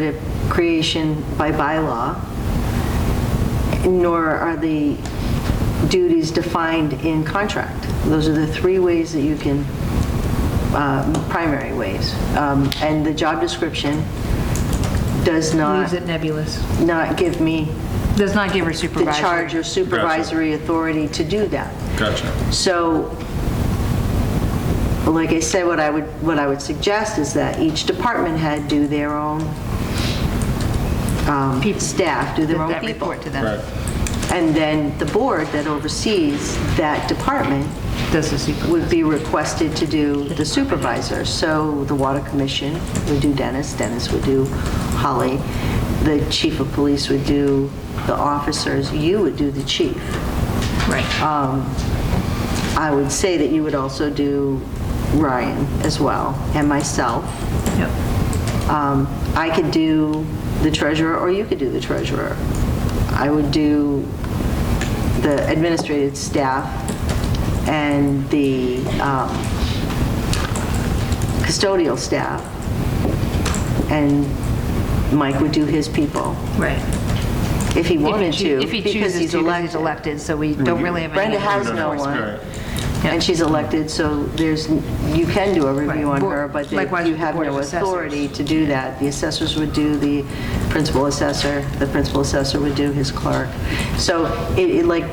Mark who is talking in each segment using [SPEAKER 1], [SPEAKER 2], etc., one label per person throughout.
[SPEAKER 1] considered creation by bylaw, nor are the duties defined in contract. Those are the three ways that you can, um, primary ways. Um, And the job description does
[SPEAKER 2] Leaves
[SPEAKER 1] not,
[SPEAKER 2] it nebulous.
[SPEAKER 1] not give me
[SPEAKER 2] Does not give her
[SPEAKER 1] the charge
[SPEAKER 2] supervisory.
[SPEAKER 1] or supervisory authority to do that.
[SPEAKER 3] Gotcha.
[SPEAKER 1] So, like I said, what I would, what I would suggest is that each department head do their own um, staff, do their own
[SPEAKER 2] That
[SPEAKER 1] people.
[SPEAKER 2] report to them.
[SPEAKER 3] Right.
[SPEAKER 1] And then the board that oversees that department
[SPEAKER 2] Does the super,
[SPEAKER 1] would be requested to do the supervisor. So the water commission would do Dennis, Dennis would do Holly, the chief of police would do the officers, you would do the chief.
[SPEAKER 2] right.
[SPEAKER 1] I would say that you would also do Ryan as well, and myself.
[SPEAKER 2] Yep.
[SPEAKER 1] Um, I could do the treasurer, or you could do the treasurer. I would do the administrative staff and the um, custodial staff, and Mike would do his people,
[SPEAKER 2] Right.
[SPEAKER 1] if he wanted
[SPEAKER 2] If he choo-
[SPEAKER 1] to,
[SPEAKER 2] If he
[SPEAKER 1] because
[SPEAKER 2] chooses
[SPEAKER 1] he's
[SPEAKER 2] to, because
[SPEAKER 1] elected.
[SPEAKER 2] he's elected, so we don't really have any.
[SPEAKER 1] Brenda has no
[SPEAKER 3] Right.
[SPEAKER 1] one, and she's elected, so there's, you can do a review
[SPEAKER 2] Right.
[SPEAKER 1] on her, but you
[SPEAKER 2] Likewise with the
[SPEAKER 1] have
[SPEAKER 2] Board of
[SPEAKER 1] no
[SPEAKER 2] Assessors.
[SPEAKER 1] authority to do that. The assessors would do the principal assessor, the principal assessor would do his clerk. So it, it, like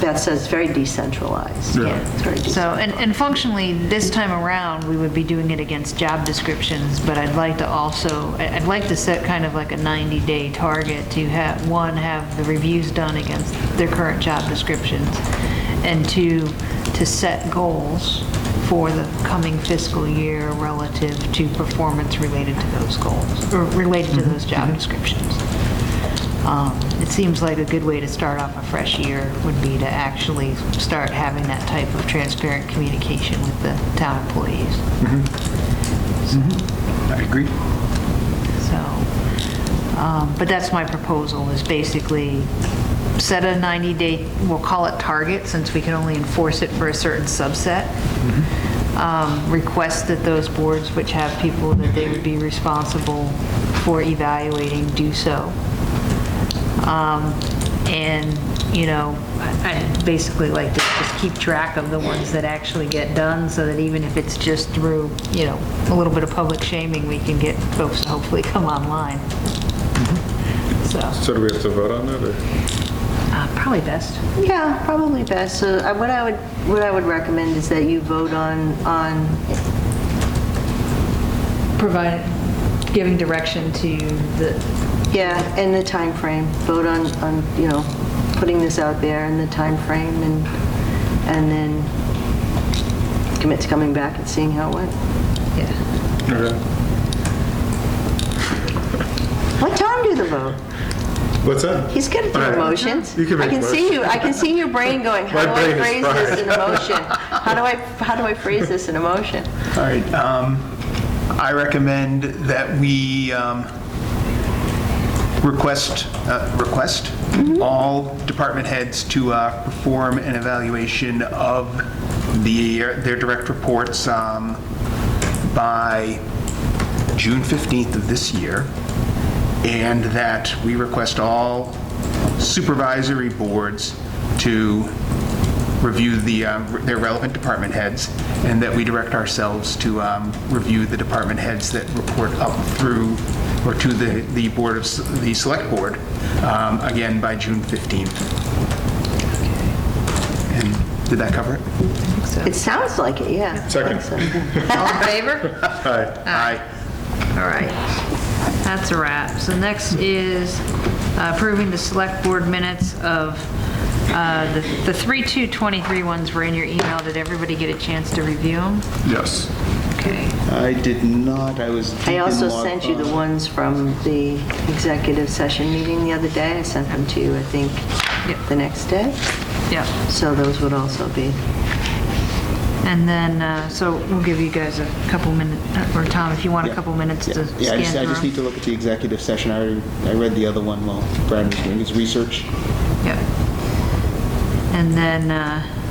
[SPEAKER 1] Beth says, it's very decentralized.
[SPEAKER 3] Yeah.
[SPEAKER 1] It's very
[SPEAKER 2] So,
[SPEAKER 1] decentralized.
[SPEAKER 2] and, and functionally, this time around, we would be doing it against job descriptions, but I'd like to also, I- I'd like to set kind of like a 90-day target to have, one, have the reviews done against their current job descriptions, and two, to set goals for the coming fiscal year relative to performance related to those goals, or related to those job descriptions. Um, It seems like a good way to start off a fresh year would be to actually start having that type of transparent communication with the town employees.
[SPEAKER 3] I agree.
[SPEAKER 2] So, um, but that's my proposal, is basically set a 90-day, we'll call it target, since we can only enforce it for a certain subset. Um, Request that those boards which have people that they would be responsible for evaluating do so. Um, And, you know, I- I'd basically like to just keep track of the ones that actually get done, so that even if it's just through, you know, a little bit of public shaming, we can get folks to hopefully come online. So,
[SPEAKER 3] So do we have to vote on that, or?
[SPEAKER 2] uh, probably best.
[SPEAKER 1] Yeah, probably best. So I- what I would, what I would recommend is that you vote on, on,
[SPEAKER 2] Provide, giving direction to the,
[SPEAKER 1] yeah, and the time frame. Vote on, on, you know, putting this out there and the time frame, and, and then commit to coming back and seeing how it went.
[SPEAKER 2] yeah.
[SPEAKER 1] Let Tom do the vote.
[SPEAKER 3] What's that?
[SPEAKER 1] He's good at the
[SPEAKER 3] Alright.
[SPEAKER 1] emotions.
[SPEAKER 3] You can
[SPEAKER 1] I
[SPEAKER 3] make
[SPEAKER 1] can see you, I can see your brain going,
[SPEAKER 3] My
[SPEAKER 1] how do I
[SPEAKER 3] brain is
[SPEAKER 1] phrase this
[SPEAKER 3] fried.
[SPEAKER 1] in emotion? How do I, how do I phrase this in emotion?
[SPEAKER 4] All right, um, I recommend that we, um, request, uh, request all department heads to, uh, perform an evaluation of the, their direct reports, um, by June 15th of this year, and that we request all supervisory boards to review the, um, their relevant department heads, and that we direct ourselves to um, review the department heads that report up through, or to the, the board of, s- the select board, um, again, by June 15th. And did that cover it?
[SPEAKER 1] It sounds like it, yeah. I think
[SPEAKER 3] Second.
[SPEAKER 1] so.
[SPEAKER 2] All in favor?
[SPEAKER 3] Aye.
[SPEAKER 4] Aye.
[SPEAKER 2] All right. That's a wrap. So next is uh, approving the select board minutes of, uh, the the 3/2/23 ones were in your email. Did everybody get a chance to review them?
[SPEAKER 3] Yes.
[SPEAKER 2] Okay.
[SPEAKER 5] I did not, I was deep
[SPEAKER 1] I
[SPEAKER 5] in
[SPEAKER 1] also
[SPEAKER 5] log
[SPEAKER 1] sent you the
[SPEAKER 5] files.
[SPEAKER 1] ones from the executive session meeting the other day. I sent them to you, I think,
[SPEAKER 2] Yep.
[SPEAKER 1] the next day.
[SPEAKER 2] Yep.
[SPEAKER 1] So those would also be,
[SPEAKER 2] And then, uh, so we'll give you guys a couple minutes, or Tom, if you want a couple minutes to
[SPEAKER 5] Yeah,
[SPEAKER 2] scan
[SPEAKER 5] I just, I just
[SPEAKER 2] through.
[SPEAKER 5] need to look at the executive session, I already, I read the other one while Brad was doing his research.
[SPEAKER 2] Yeah. And then, uh,